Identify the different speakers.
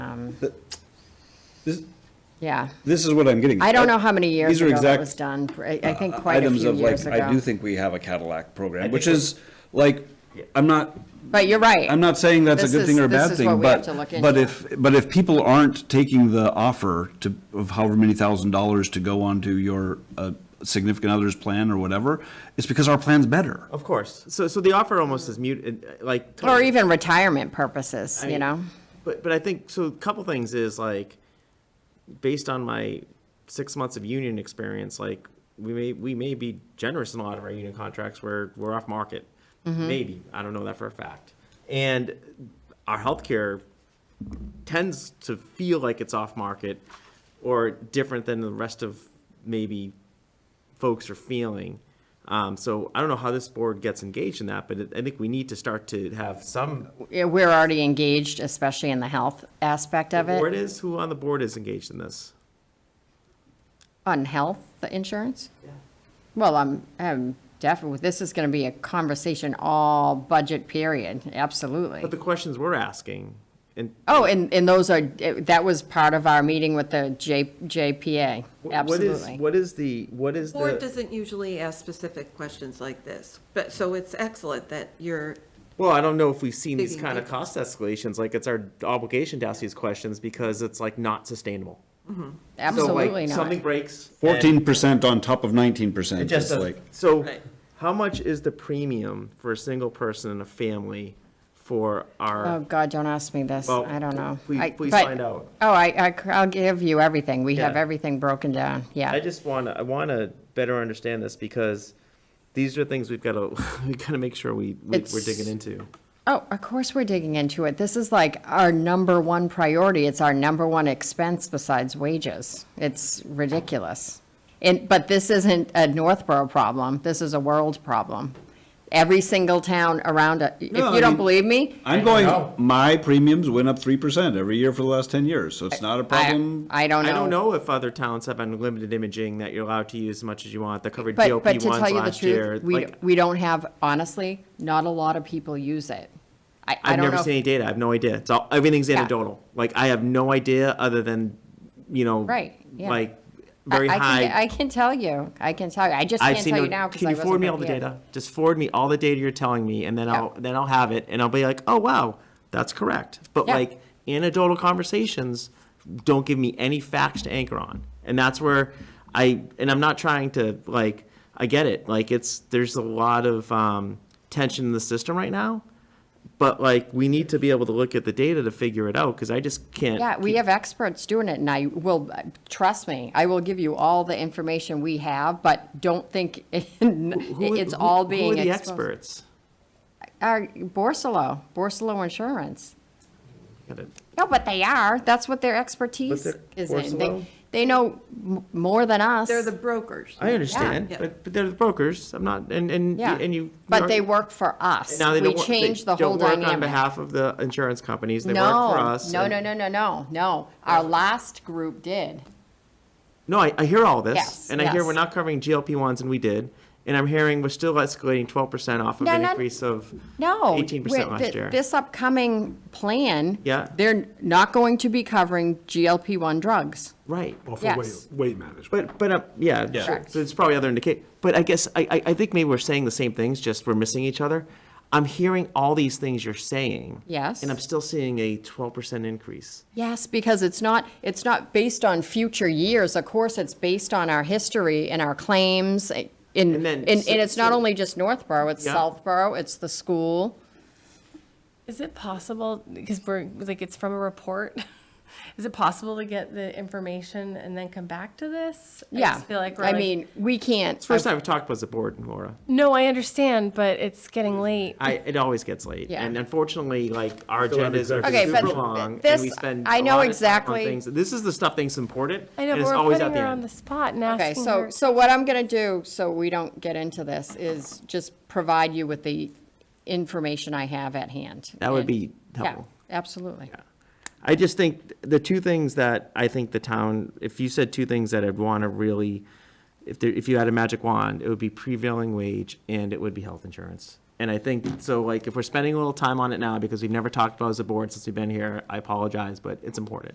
Speaker 1: that- this,
Speaker 2: Um, Yeah.
Speaker 1: this is what I'm getting.
Speaker 2: I don't know how many years
Speaker 1: These are
Speaker 2: ago that
Speaker 1: exact
Speaker 2: was done. I I think
Speaker 1: uh,
Speaker 2: quite a
Speaker 1: items
Speaker 2: few
Speaker 1: of, like,
Speaker 2: years ago.
Speaker 1: I do think we have a Cadillac program,
Speaker 3: think
Speaker 1: which
Speaker 3: we're-
Speaker 1: is, like, I'm not,
Speaker 2: But you're right.
Speaker 1: I'm not saying that's a
Speaker 2: This
Speaker 1: good
Speaker 2: is-
Speaker 1: thing or a
Speaker 2: this
Speaker 1: bad
Speaker 2: is what
Speaker 1: thing,
Speaker 2: we have
Speaker 1: but,
Speaker 2: to look
Speaker 1: but
Speaker 2: into.
Speaker 1: if, but if people aren't taking the offer to, of however many thousand dollars to go onto your uh, significant other's plan or whatever, it's because our plan's better.
Speaker 3: Of course. So, so the offer almost is mute, uh, like.
Speaker 2: Or
Speaker 3: totally.
Speaker 2: even retirement purposes,
Speaker 3: I
Speaker 2: you
Speaker 3: mean,
Speaker 2: know?
Speaker 3: But, but I think, so a couple things is like, based on my six months of union experience, like, we may, we may be generous in a lot of our union contracts where we're off market. Maybe, I don't know that for a fact. And our healthcare tends to feel like it's off market or different than the rest of maybe folks are feeling. Um, so I don't know how this board gets engaged in that, but I think we need to start to have some
Speaker 2: Yeah, We're already engaged, especially in the health aspect of
Speaker 3: board
Speaker 2: it,
Speaker 3: is, who on the board is engaged in this?
Speaker 2: on health insurance. Well, I'm, I'm definitely, this is going to be a conversation all budget period, absolutely.
Speaker 3: But the questions we're asking, and
Speaker 2: Oh, and, and those are, that was part of our meeting with the J, JPA,
Speaker 3: wh- what is,
Speaker 2: absolutely.
Speaker 3: what is the, what is
Speaker 4: Board
Speaker 3: the?
Speaker 4: doesn't usually ask specific questions like this, but, so it's excellent that you're,
Speaker 3: Well, I don't know if we've seen these
Speaker 4: Digging
Speaker 3: kind of
Speaker 4: deeper.
Speaker 3: cost escalations, like it's our obligation to ask these questions because it's like not sustainable. So, like,
Speaker 2: Absolutely not.
Speaker 3: Something breaks. and
Speaker 1: Fourteen percent on top of nineteen
Speaker 3: It
Speaker 1: percent, just
Speaker 3: just doesn't,
Speaker 1: like,
Speaker 3: so
Speaker 4: Right.
Speaker 3: how much is the premium for a single person in a family for
Speaker 2: Oh,
Speaker 3: our?
Speaker 2: God, don't ask me this.
Speaker 3: Well,
Speaker 2: I don't know.
Speaker 3: please-
Speaker 2: I-
Speaker 3: please
Speaker 2: but-
Speaker 3: find out.
Speaker 2: Oh, I, I, will give you everything. We have
Speaker 3: Yeah.
Speaker 2: everything broken down,
Speaker 3: I
Speaker 2: yeah.
Speaker 3: just want to, I want to better understand this because these are things we've got to, we got to make sure we, we- we're
Speaker 2: It's-
Speaker 3: digging into.
Speaker 2: Oh, of course we're digging into it. This is like our number one priority. It's our number one expense besides wages. It's ridiculous. And, but this isn't a Northborough problem. This is a world problem. Every single town around, it- if
Speaker 1: No, I
Speaker 2: you don't
Speaker 1: mean-
Speaker 2: believe me,
Speaker 1: I'm going, my premiums went up three percent every year for the last ten years, so it's not a
Speaker 2: I,
Speaker 1: problem.
Speaker 2: I don't know.
Speaker 3: I don't know if other towns have unlimited imaging that you're allowed to use as much as you want. The covered
Speaker 2: But, but
Speaker 3: GOP
Speaker 2: to
Speaker 3: ones
Speaker 2: tell you the
Speaker 3: last year.
Speaker 2: truth, we,
Speaker 3: like,
Speaker 2: we don't have, honestly, not a lot of people use it. I, I
Speaker 3: I've
Speaker 2: don't
Speaker 3: never
Speaker 2: know.
Speaker 3: seen any
Speaker 2: if-
Speaker 3: data. I have no idea. It's all, everything's anecdotal. Like I have no idea other than, you know,
Speaker 2: Right, yeah.
Speaker 3: like
Speaker 2: I-
Speaker 3: very
Speaker 2: I can-
Speaker 3: high.
Speaker 2: I can tell you, I can tell you. I just
Speaker 3: I've
Speaker 2: can't
Speaker 3: seen
Speaker 2: tell
Speaker 3: no-
Speaker 2: you now because I
Speaker 3: Can you
Speaker 2: wasn't
Speaker 3: forward me all the
Speaker 2: prepared.
Speaker 3: data? Just forward me all the data you're telling me and then
Speaker 2: Yeah.
Speaker 3: I'll, then I'll have it and I'll be like, oh, wow, that's correct. But
Speaker 2: Yeah.
Speaker 3: like anecdotal conversations don't give me any facts to anchor on. And that's where I, and I'm not trying to like, I get it. Like it's, there's a lot of, um, tension in the system right now. But like, we need to be able to look at the data to figure it out because I just can't.
Speaker 2: Yeah, we have experts doing it and I will, trust me, I will give you all the information we have, but don't think
Speaker 3: Who-
Speaker 2: it's
Speaker 3: who-
Speaker 2: all being
Speaker 3: Who are the
Speaker 2: exposed.
Speaker 3: experts?
Speaker 2: Our Borsalo, Borsalo Insurance.
Speaker 3: Got it.
Speaker 2: No, but they are. That's what their expertise
Speaker 3: they're
Speaker 2: is in.
Speaker 3: Borsalo?
Speaker 2: They, they know m- more than us.
Speaker 4: they're the brokers.
Speaker 3: I understand,
Speaker 4: Yeah.
Speaker 3: but, but they're the brokers. I'm not, and, and,
Speaker 2: Yeah.
Speaker 3: and you.
Speaker 2: But they work for us.
Speaker 3: Now they
Speaker 2: We
Speaker 3: don't work- they
Speaker 2: changed the whole
Speaker 3: don't work
Speaker 2: dynamic.
Speaker 3: On behalf of the insurance companies, they work for
Speaker 2: No,
Speaker 3: us.
Speaker 2: no,
Speaker 3: and-
Speaker 2: no, no, no, no, no. Our last group did.
Speaker 3: No, I, I hear all this,
Speaker 2: Yes,
Speaker 3: and I hear
Speaker 2: yes.
Speaker 3: we're not covering GLP ones, and we did. And I'm hearing we're still escalating twelve percent off of
Speaker 2: No,
Speaker 3: an
Speaker 2: no,
Speaker 3: increase of
Speaker 2: No.
Speaker 3: eighteen
Speaker 2: we're-
Speaker 3: percent last
Speaker 2: th-
Speaker 3: year.
Speaker 2: This upcoming plan.
Speaker 3: Yeah.
Speaker 2: They're not going to be covering GLP-1 drugs.
Speaker 3: Right.
Speaker 5: Well, for weight,
Speaker 2: Yes.
Speaker 5: weight management.
Speaker 3: But, but, uh, yeah, sure.
Speaker 2: Correct.
Speaker 3: so it's probably other indicate, but I guess, I, I, I think maybe we're saying the same things, just we're missing each other. I'm hearing all these things you're saying.
Speaker 2: Yes.
Speaker 3: And I'm still seeing a twelve percent increase.
Speaker 2: Yes, because it's not, it's not based on future years. Of course, it's based on our history and our claims. eh, In,
Speaker 3: And
Speaker 2: and,
Speaker 3: then-
Speaker 2: and it's not
Speaker 3: so-
Speaker 2: only just Northborough, it's
Speaker 3: Yeah.
Speaker 2: Southborough, it's the school.
Speaker 6: Is it possible, because we're, like, it's from a report, is it possible to get the information and then come back to this? I
Speaker 2: Yeah.
Speaker 6: just feel like we're
Speaker 2: I
Speaker 6: like-
Speaker 2: mean, we can't.
Speaker 3: It's the first time I've talked about the board, Laura.
Speaker 6: No, I understand, but it's getting late.
Speaker 3: I, it always gets late,
Speaker 2: Yeah.
Speaker 3: and unfortunately, like, our
Speaker 5: Still have
Speaker 3: agendas are
Speaker 5: executive
Speaker 2: Okay, but
Speaker 3: super long,
Speaker 2: th-
Speaker 3: and we
Speaker 2: this-
Speaker 3: spend
Speaker 2: I
Speaker 3: a
Speaker 2: know
Speaker 3: lot of time on
Speaker 2: exactly-
Speaker 3: things. This is the stuff that's important,
Speaker 6: I know,
Speaker 3: and
Speaker 6: but
Speaker 3: it's
Speaker 6: we're
Speaker 3: always at
Speaker 6: putting
Speaker 3: the
Speaker 6: her on the
Speaker 3: end.
Speaker 6: spot and
Speaker 2: Okay,
Speaker 6: asking
Speaker 2: so,
Speaker 6: her.
Speaker 2: so what I'm gonna do, so we don't get into this, is just provide you with the information I have at hand.
Speaker 3: That would
Speaker 2: And-
Speaker 3: be
Speaker 2: Yeah,
Speaker 3: helpful.
Speaker 2: Absolutely.
Speaker 3: I just think the two things that I think the town, if you said two things that I'd want to really, if there, if you had a magic wand, it would be prevailing wage and it would be health insurance. And I think, so like, if we're spending a little time on it now, because we've never talked about it as a board since we've been here, I apologize, but it's important.